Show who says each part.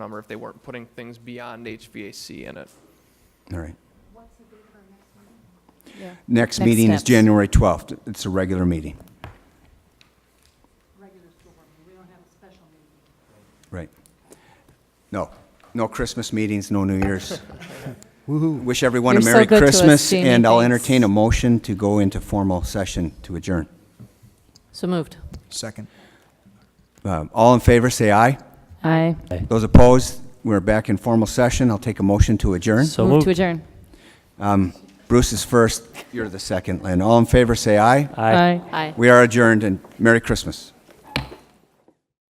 Speaker 1: number if they weren't putting things beyond HVAC in it.
Speaker 2: All right.
Speaker 3: Yeah.
Speaker 2: Next
Speaker 3: Next
Speaker 2: meeting is
Speaker 3: steps.
Speaker 2: January 12th. It's a regular meeting. Regular we don't have a special meeting. Right. No, no Christmas meetings, no New Year's. Wish everyone a
Speaker 3: You're so
Speaker 2: Merry
Speaker 3: good to us,
Speaker 2: Christmas,
Speaker 3: Jamie.
Speaker 2: and I'll
Speaker 3: Thanks.
Speaker 2: entertain a motion to go into formal session to adjourn.
Speaker 3: So moved.
Speaker 4: Second.
Speaker 2: Um, All in favor, say aye.
Speaker 3: Aye.
Speaker 2: Those opposed, we're back in formal session. I'll take a motion to adjourn.
Speaker 5: So
Speaker 3: Move to
Speaker 5: moved.
Speaker 3: adjourn.
Speaker 2: Bruce is first, you're the second, Lynn. All in favor, say aye.
Speaker 5: Aye.
Speaker 3: Aye.
Speaker 2: We are adjourned, and Merry Christmas.